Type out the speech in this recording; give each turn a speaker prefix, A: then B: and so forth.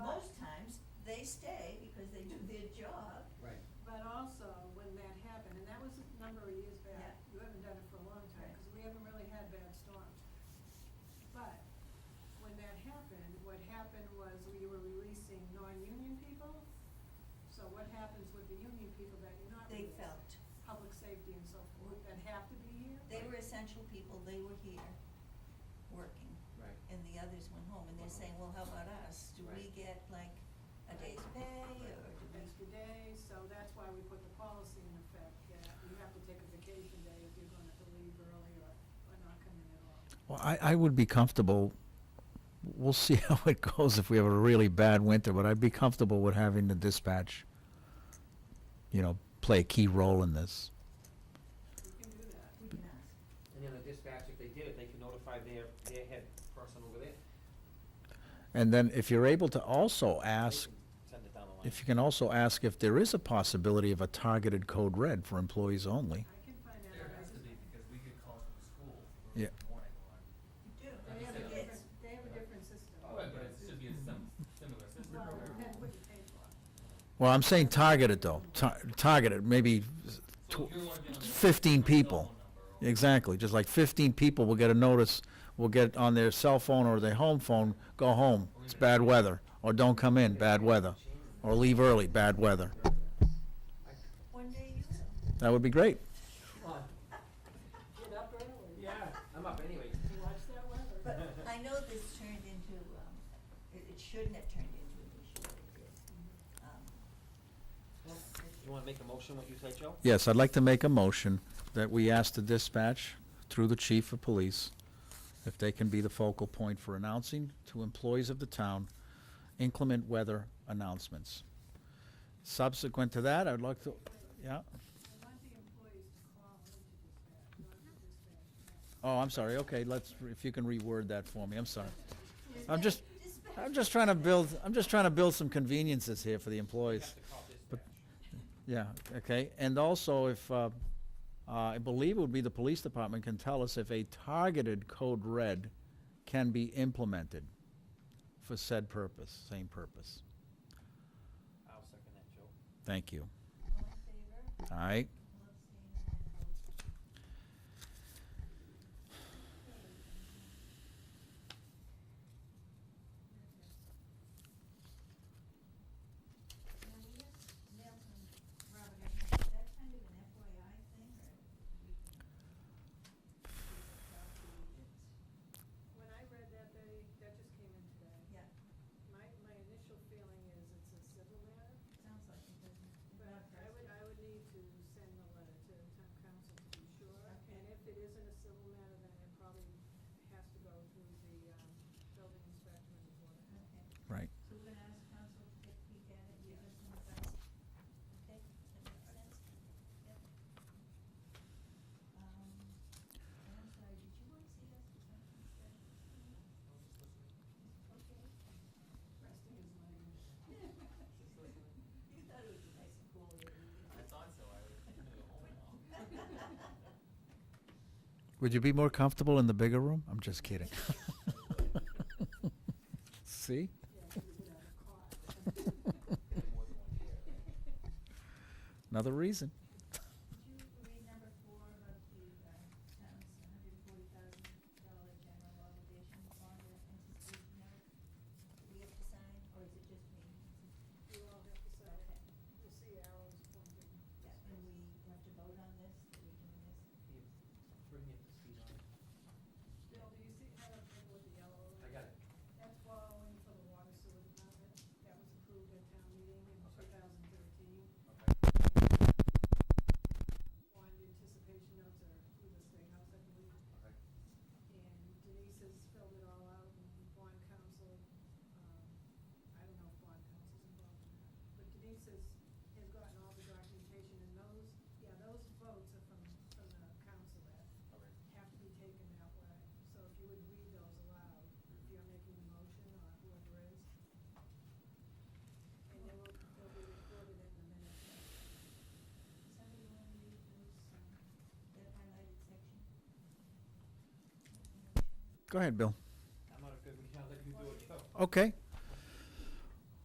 A: number of years
B: Yeah.
A: back. You haven't done it for a long time,
B: Right.
A: because we haven't really had bad storms. But when that happened, what happened was we were releasing non-union people. So what happens with the union people that you're not
B: They
A: releasing?
B: felt.
A: Public safety and so forth, that have to be here?
B: They were essential people, they were here, working.
C: Right.
B: And the others went home, and they're saying, well, how about us? Do we
C: Right.
B: get like a day's pay, or do we?
A: Extra day, so that's why we put the policy in effect, that you have to take a vacation day if you're gonna have to leave early or, or not come in at all.
D: Well, I, I would be comfortable, we'll see how it goes if we have a really bad winter, but I'd be comfortable with having the dispatch, you know, play a key role in this.
A: You can do that.
B: We can ask.
C: And then the dispatch, if they did it, they can notify their, their head person over there.
D: And then if you're able to also
C: They
D: ask,
C: can Send it down the line.
D: if you can also ask if there is a possibility of a targeted code red for employees only.
A: I can find out.
E: There
A: I
E: has to
A: just-
E: be, because we get calls from the school
D: Yeah.
E: early in the morning on.
B: You do.
A: They have a
E: Understand.
A: different, they have a different system.
E: Right, but it should be a sim- similar system.
A: Well, it depends what you pay for.
D: Well, I'm saying targeted though, tar- targeted, maybe
E: So
D: tw-
E: you're one down the-
D: 15
E: your cell
D: people.
E: phone number or-
D: Exactly, just like fifteen people will get a notice, will get on their cell phone or their home phone, go home, it's bad weather, or don't come in, bad weather, or leave early, bad weather.
B: One day you will.
D: That would be great.
C: Well,
A: Get up early.
C: Yeah, I'm up anyway.
A: Watch that weather.
B: But I know this turned into, um, it, it shouldn't have turned into an issue, but it did.
A: Mm-hmm.
B: Um,
C: Well, You wanna make a motion, what you say, Joe?
D: Yes, I'd like to make a motion that we ask the dispatch through the chief of police if they can be the focal point for announcing to employees of the town inclement weather announcements. Subsequent to that, I'd like to, yeah,
A: I want the employees to call into dispatch, not to dispatch.
D: oh, I'm sorry, okay, let's, if you can reword that for me, I'm sorry.
B: dispatch-
D: I'm just-
B: dispatch.
D: I'm just trying to build, I'm just trying to build some conveniences here for the
C: You
D: employees.
C: have to call
D: But-
C: dispatch.
D: Yeah, okay, and also if, uh, uh, I believe it would be the police department can tell us if a targeted code red can be implemented for said purpose, same purpose.
C: I'll second that, Joe.
D: Thank you.
B: All in favor?
D: All right,
B: All abstaining, and I vote Now, we have mail from Robert Evans. Is that kind of an FYI thing, or we can keep it up to it's-
A: When I read that, they, that just came in today.
B: Yeah,
A: My, my initial feeling is it's a civil matter,
B: sounds like it doesn't. it's
A: but
B: not
A: I would,
B: personal.
A: I would need to send the letter to the town council to be sure.
B: Okay.
A: And if it isn't a civil matter, then it probably has to go through the, um, building inspector and the board. of health.
B: Okay.
D: right.
B: So we're gonna ask council to take a peek at it, give us some advice. Okay, that makes sense? Yep. Um, and I'm sorry, did you want to see us to talk to Okay.
A: Resting is my.
B: You thought it was nice and cool. that we did
E: I
B: this.
E: thought so, I was gonna go home now.
D: Would you be more comfortable in the bigger room? I'm just kidding. See?
E: More than one year.
D: Another reason.
B: Did you read number four about the, uh, town's hundred and forty thousand dollar general obligation bond that anticipated note? that we have to sign, or is it just me?
A: You all have to sign it. You see arrows pointing.
B: Yeah, and we have to vote on this, that we're doing this?
C: You Bring it to speed on.
A: Bill, do you see that up there with the yellow?
C: I got it.
A: That's borrowing for the water sewer department. That was approved at town meeting in two
C: Okay.
A: thousand thirteen.
C: Okay.
A: Bond anticipation notes are through the state house, I believe.
C: Okay.
A: And Denise has filled it all out and bond council, um, I don't know if bond council's involved in that. But Denise has, has gotten all the documentation and those, yeah, those votes are from, from the council that
C: All right.
A: have to be taken that way. So if you would read those aloud, if you're making the motion or whoever is. And they will, they'll be recorded in the minutes.
B: Somebody want to read those, um, that highlighted section?
D: Go ahead, Bill.
C: I'm not a good, I'll let you do it, Joe.
D: Okay,